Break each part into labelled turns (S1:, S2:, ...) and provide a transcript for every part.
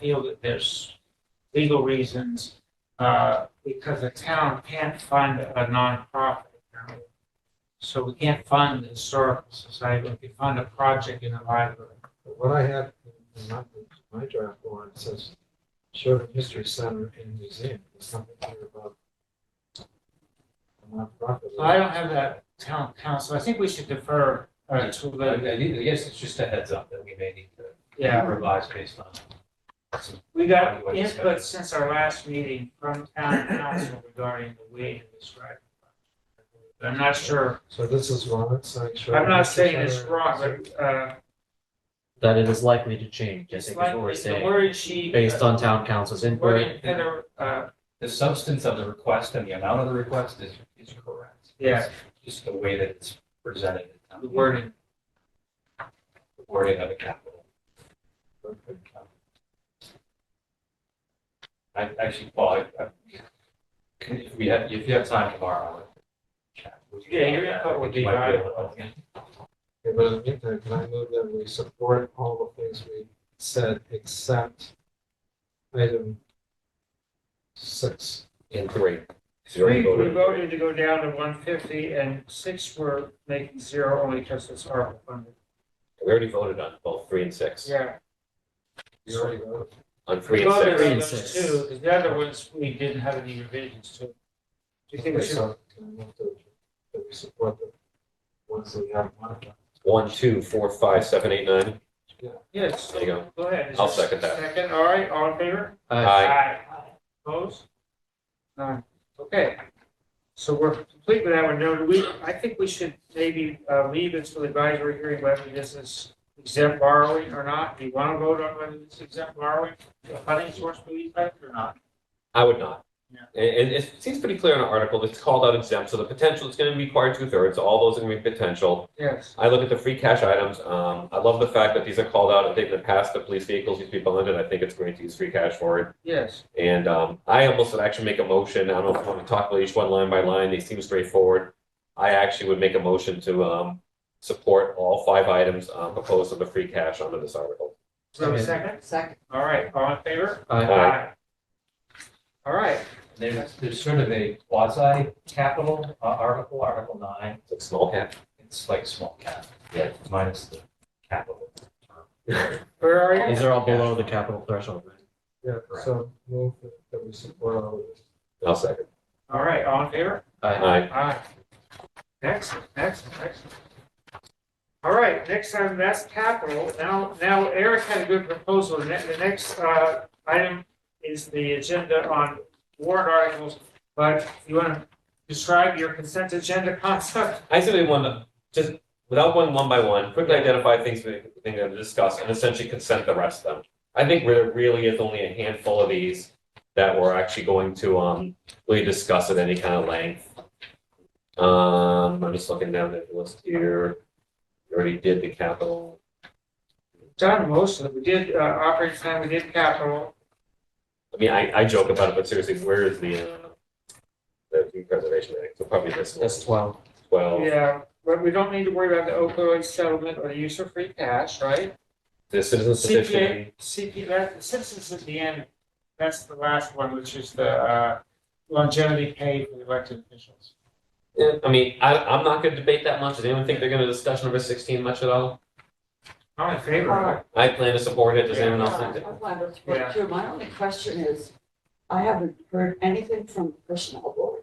S1: feel that there's legal reasons, uh, because the town can't fund a nonprofit. So we can't fund the historical society, we can fund a project in the library.
S2: But what I have in my, my draft warrant says Sherman History Center and Museum, there's something here about a nonprofit.
S1: So I don't have that town council, I think we should defer, uh, to
S3: But I
S1: the,
S3: I guess it's just a heads up that we may need to
S1: yeah.
S3: revise based on. some-
S1: We got input since our last meeting from town council regarding the way to describe. it. I'm not sure,
S2: So this is wrong, it's saying Sherman.
S1: I'm not
S2: History
S1: saying it's
S2: Center
S1: wrong,
S2: and
S1: but, uh,
S4: that it is likely to change, I
S1: it's
S4: think is
S1: like,
S4: what we're
S1: the
S4: saying,
S1: word she.
S4: based on town council's
S1: We're
S4: input.
S1: in Heather, uh,
S3: The substance of the request and the amount of the request is, is correct.
S1: yeah,
S3: Just the way that it's presented,
S1: the
S3: the
S1: wording,
S3: wording of the capital.
S2: Museum.
S3: I actually, Paul, I- I- if we have, if you have time tomorrow. I'll chat with you.
S1: Yeah, your input would be
S3: Might able to
S1: valuable.
S3: help me.
S2: Okay, but in the meantime, can I move that we support all the things we said except item six?
S5: And three. Is there
S1: three,
S5: any
S1: we
S5: voter?
S1: voted to go down to one fifty and six were making zero only because it's ARPA funded.
S5: We already voted on both three and six.
S1: Yeah.
S2: You already voted.
S5: On
S1: We
S5: three and
S1: voted
S5: six.
S1: on
S4: and
S1: those
S4: six.
S1: two, 'cause the other ones, we didn't have any revisions to. Do you think we
S2: Okay,
S1: should
S2: so can I move to- That we support the ones we have modified?
S5: One, two, four, five, seven, eight, nine.
S1: Yes.
S5: There you go.
S1: Go ahead. Is
S5: I'll
S1: there
S5: second that.
S1: Second, all right, all in favor?
S4: Uh,
S5: Aye.
S1: Opposed? None. Okay. So we're complete with that one. No, we, I think we should maybe uh, leave it to the advisory hearing whether this is exempt borrowing or not. Do you want to vote on whether this is exempt borrowing, a funding source for these funds or not?
S5: I would not.
S1: Yeah.
S5: And, and it seems pretty clear in our article, that it's called out exempt, so the potential is gonna require two thirds, all those in the potential.
S1: Yes.
S5: I look at the free cash items, um, I love the fact that these are called out, I think in the past, the police vehicles used to be bonded, I think it's great to use free cash for it.
S1: Yes.
S5: And um, I almost would actually make a motion. I don't know if you want to talk about each one line by line. They seem straightforward. I actually would make a motion to um, support all five items uh, proposed on the free cash under this article.
S1: So a second?
S6: Second.
S1: All right, all in favor?
S4: aye.
S5: Uh,
S1: All right.
S3: There's, there's sort of a quasi capital article, Article nine,
S5: It's a small cap.
S3: it's like small cap. Yeah. Minus the capital.
S1: Where are you?
S4: These are all below the capital threshold, right?
S2: Yeah, so move that we support all of this.
S5: I'll second.
S1: All right, all in favor?
S4: Aye.
S5: Aye.
S1: Aye. Excellent, excellent, excellent. All right, next time, that's capital. Now, now Eric had a good proposal. The ne- the next uh, item is the agenda on warrant articles. But you want to describe your consent agenda concept?
S5: I simply want to, just without going one by one, quickly identify things we think to discuss and essentially consent the rest of them. I think there really is only a handful of these that we're actually going to, um, really discuss at any kind of length. Um, I'm just looking down the list here. We Already did the capital.
S1: Done most of it. We did uh, operating plan, we did capital.
S5: I mean, I, I joke about it, but seriously, where is the, uh, the Food preservation act? So probably this one,
S4: That's twelve.
S5: twelve,
S1: Yeah, but we don't need to worry about the opioid settlement or the use of free cash, right?
S5: the citizen petition.
S1: CPA, CP, that, the citizens at the end, that's the last one, which is the uh, longevity pay for the elected officials.
S5: Yeah, I mean, I, I'm not gonna debate that much. Does anyone think they're gonna discuss number sixteen much at all?
S1: I'm in favor of it.
S5: I plan to support it. Does anyone else think that?
S6: I wanted to
S1: Yeah.
S6: work through. My only question is, I haven't heard anything from the personnel board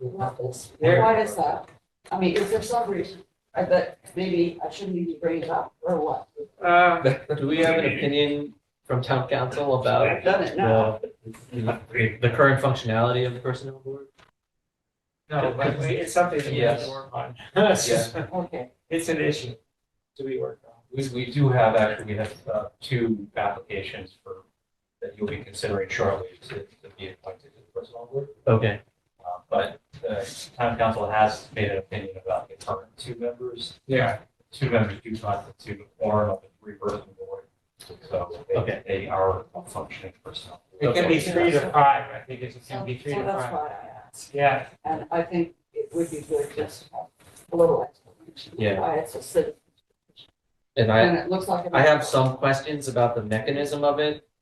S6: about this.
S1: Yeah.
S6: Why is that? I mean, is there some reason? I bet maybe I shouldn't even bring it up or what?
S1: Uh,
S4: Do we have an opinion from town council about
S6: I've done it now.
S4: the, the current functionality of the personnel board?
S1: No, but we- it's something that we have to work on. It's just-
S6: Okay.
S1: It's an issue to be worked on.
S3: We, we do have, actually, we have uh, two applications for, that you'll be considering shortly to, to be appointed to the personnel board.
S4: Okay,
S3: Uh, But the town council has made an opinion about the current two members.
S1: Yeah.
S3: Two members do constitute a quorum of the three-person board, so they,
S4: Okay.
S3: they are a functioning personnel.
S1: It can be three to five, I think it's- it
S6: So
S1: can be
S6: so
S1: three to
S6: that's
S1: five.
S6: why I asked.
S1: Yeah,
S6: And I think it would be good just to have a little explanation.
S4: Yeah.
S6: Why it's a citizen.
S4: and I,
S6: And it looks like.
S4: I have some questions about the mechanism of it.